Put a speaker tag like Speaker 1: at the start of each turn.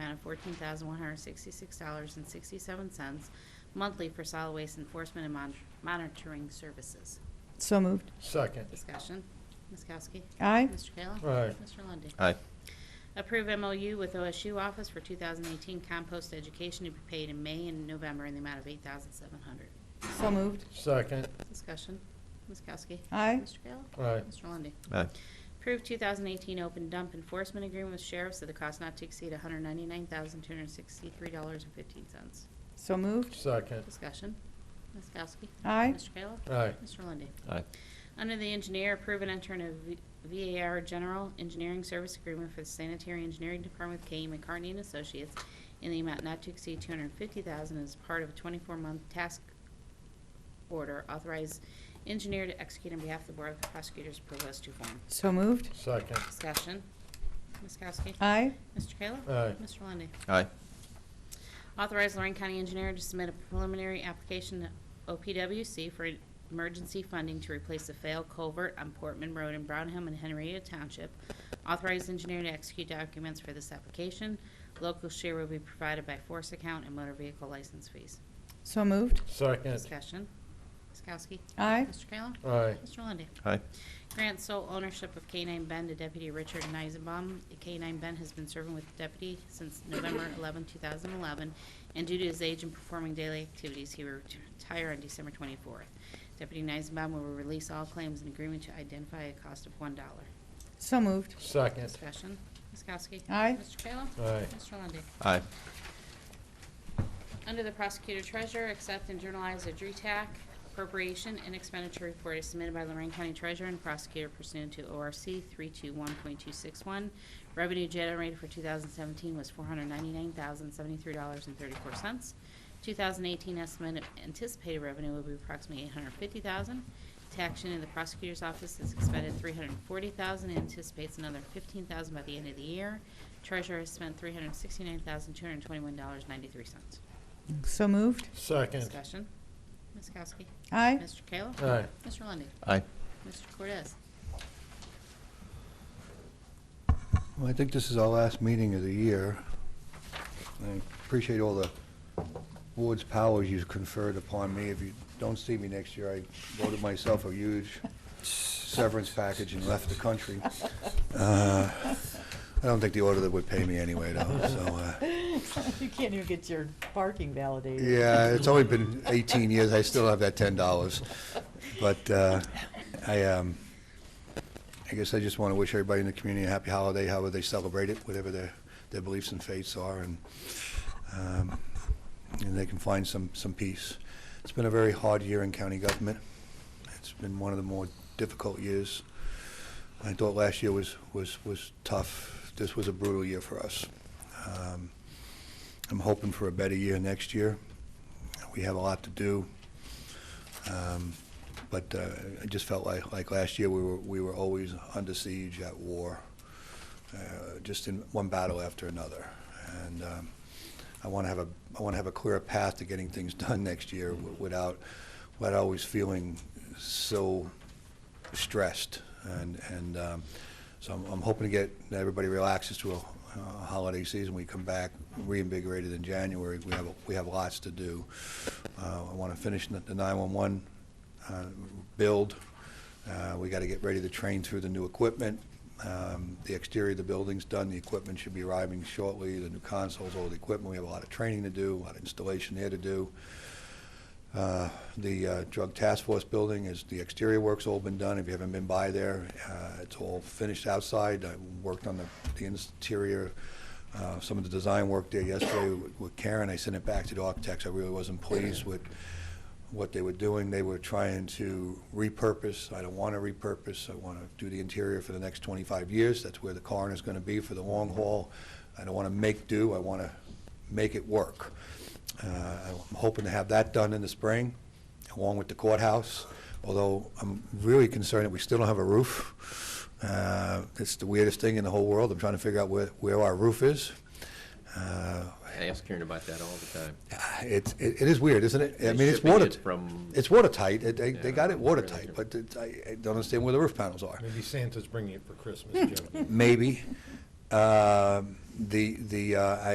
Speaker 1: fourteen thousand one hundred sixty-six dollars and sixty-seven cents monthly for solid waste enforcement and mon- monitoring services.
Speaker 2: So moved.
Speaker 3: second,
Speaker 1: Discussion. Ms. Kowski?
Speaker 2: Aye.
Speaker 1: Mr. Kayla?
Speaker 3: Aye.
Speaker 1: Mr. Lundy.
Speaker 4: aye,
Speaker 1: Approve MOU with OSU Office for 2018 compost education to be paid in May and November in the amount of 8700
Speaker 2: So moved.
Speaker 3: second,
Speaker 1: Discussion. Ms. Kowski?
Speaker 2: Aye.
Speaker 1: Mr. Kayla?
Speaker 3: Aye.
Speaker 1: Mr. Lundey?
Speaker 4: aye,
Speaker 1: Approve 2018 open dump enforcement agreement with sheriffs at the cost not to exceed $199,263.15.
Speaker 2: So moved.
Speaker 3: second,
Speaker 1: Discussion. Ms. Kowski?
Speaker 2: Aye.
Speaker 1: Mr. Kayla?
Speaker 3: Aye.
Speaker 1: Mr. Lundey?
Speaker 4: aye,
Speaker 1: Under the engineer, approve and enter in a V- VAR General Engineering Service Agreement for the Sanitary Engineering Department with K. E. McCartney and Associates in the amount not to exceed two hundred and fifty thousand as part of a twenty-four-month task order. Authorize engineer to execute on behalf of the Board of Prosecutors Provost to form.
Speaker 2: So moved.
Speaker 3: second,
Speaker 1: Discussion. Ms. Kowski?
Speaker 2: Aye.
Speaker 1: Mr. Kayla?
Speaker 3: Aye.
Speaker 1: Mr. Lundey?
Speaker 4: aye,
Speaker 1: Authorize Lorraine County Engineer to submit a preliminary application to OPWC for emergency funding to replace a failed culvert on Portman Road in Brownham and Henrietta Township. Authorize engineer to execute documents for this application. Local share will be provided by force account and motor vehicle license fees.
Speaker 2: So moved.
Speaker 3: second,
Speaker 1: Discussion. Ms. Kowski?
Speaker 2: Aye.
Speaker 1: Mr. Kayla?
Speaker 3: Aye.
Speaker 1: Mr. Lundey?
Speaker 4: aye,
Speaker 1: Grant sole ownership of K-9 Ben to Deputy Richard Neisenbaum. K-9 Ben has been serving with the deputy since November 11, 2011, and due to his age and performing daily activities, he will retire on December 24th. Deputy Neisenbaum will release all claims in agreement to identify a cost of $1.
Speaker 2: So moved.
Speaker 3: second,
Speaker 1: Discussion. Ms. Kowski?
Speaker 2: Aye.
Speaker 1: Mr. Kayla?
Speaker 3: Aye.
Speaker 1: Mr. Lundey?
Speaker 4: aye,
Speaker 1: Under the prosecutor treasurer, accept and journalize a DRETAC appropriation and expenditure report is submitted by Lorraine County Treasurer and prosecutor pursuant to ORC 321.261. Revenue generated for 2017 was $499,073.34. 2018 estimate of anticipated revenue will be approximately 850000 Tax in the prosecutor's office has expended 340000 and anticipates another 15000 by the end of the year. Treasurer has spent $369,221.93.
Speaker 2: So moved.
Speaker 3: second,
Speaker 1: Discussion. Ms. Kowski.
Speaker 2: Aye.
Speaker 1: Mr. Kayla.
Speaker 3: Aye.
Speaker 1: Mr. Lundey.
Speaker 4: aye.
Speaker 1: Mr. Cortez.
Speaker 5: Well, I think this is our last meeting of the year. I appreciate all the board's powers you've conferred upon me. If you don't see me next year, I voted myself a huge severance package and left the country. Uh, I don't think the auditor would pay me anyway, though, so, uh,
Speaker 6: You can't even get your parking validated.
Speaker 5: yeah, it's only been 18 years, I still have that $10. But uh, I, um, I guess I just want to wish everybody in the community a happy holiday, however they celebrate it, whatever their, their beliefs and faiths are, and, um, and they can find some, some peace. It's been a very hard year in county government. It's been one of the more difficult years. I thought last year was, was, was tough. This was a brutal year for us. Um, I'm hoping for a better year next year. We have a lot to do. Um, But uh, I just felt like, like last year, we were, we were always under siege at war, uh, just in one battle after another. And um, I want to have a, I want to have a clear path to getting things done next year wi- without, without always feeling so stressed. And, and um, so I'm, I'm hoping to get, that everybody relaxes to a uh, holiday season. We come back reinvigorated in January. We have, we have lots to do. Uh, I want to finish the the 911 uh, build. Uh, We got to get ready to train through the new equipment. Um, The exterior of the building's done, the equipment should be arriving shortly, the new consoles, all the equipment. We have a lot of training to do, a lot of installation there to do. Uh, The uh, Drug Task Force building is, the exterior work's all been done. If you haven't been by there, uh, it's all finished outside. I worked on the the interior, uh, some of the design work there yesterday with- with Karen. I sent it back to the architects. I really wasn't pleased with what they were doing. They were trying to repurpose. I don't want to repurpose. I want to do the interior for the next 25 years. That's where the coroner's going to be for the long haul. I don't want to make do. I want to make it work. Uh, I'm hoping to have that done in the spring, along with the courthouse, although I'm really concerned that we still don't have a roof. Uh, It's the weirdest thing in the whole world. I'm trying to figure out where, where our roof is. Uh,
Speaker 4: I ask Karen about that all the time.
Speaker 5: Ah, It's, it it is weird, isn't it? I
Speaker 4: They're
Speaker 5: mean, it's
Speaker 4: shipping
Speaker 5: water.
Speaker 4: it from-
Speaker 5: It's watertight. It- They, they
Speaker 4: Yeah,
Speaker 5: got it
Speaker 4: really.
Speaker 5: watertight, but it's- I I don't understand where the roof panels are.
Speaker 3: maybe Santa's bringing it for Christmas, Jim.
Speaker 5: Maybe. Um, The, the, uh,